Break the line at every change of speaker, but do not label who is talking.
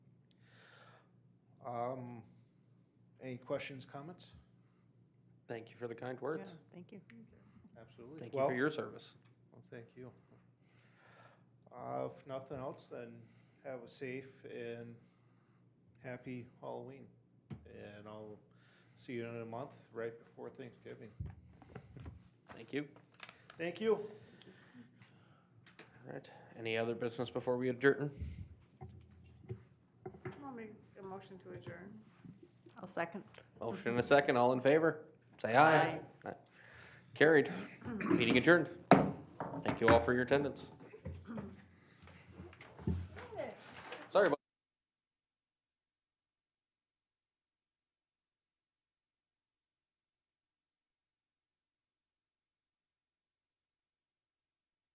Um, Any questions, comments?
Thank you for the kind words.
Yeah, Thank you.
Absolutely.
Thank you for your service.
Well, thank you. Uh, If nothing else, then have a safe and happy Halloween. And I'll see you in a month, right before Thanksgiving.
Thank you.
Thank you.
All right. Any other business before we adjourn?
I'll make a motion to adjourn.
I'll second.
Motion and a second. All in favor? Say aye. Aye. Carried. Meeting adjourned. Thank you all for your attendance.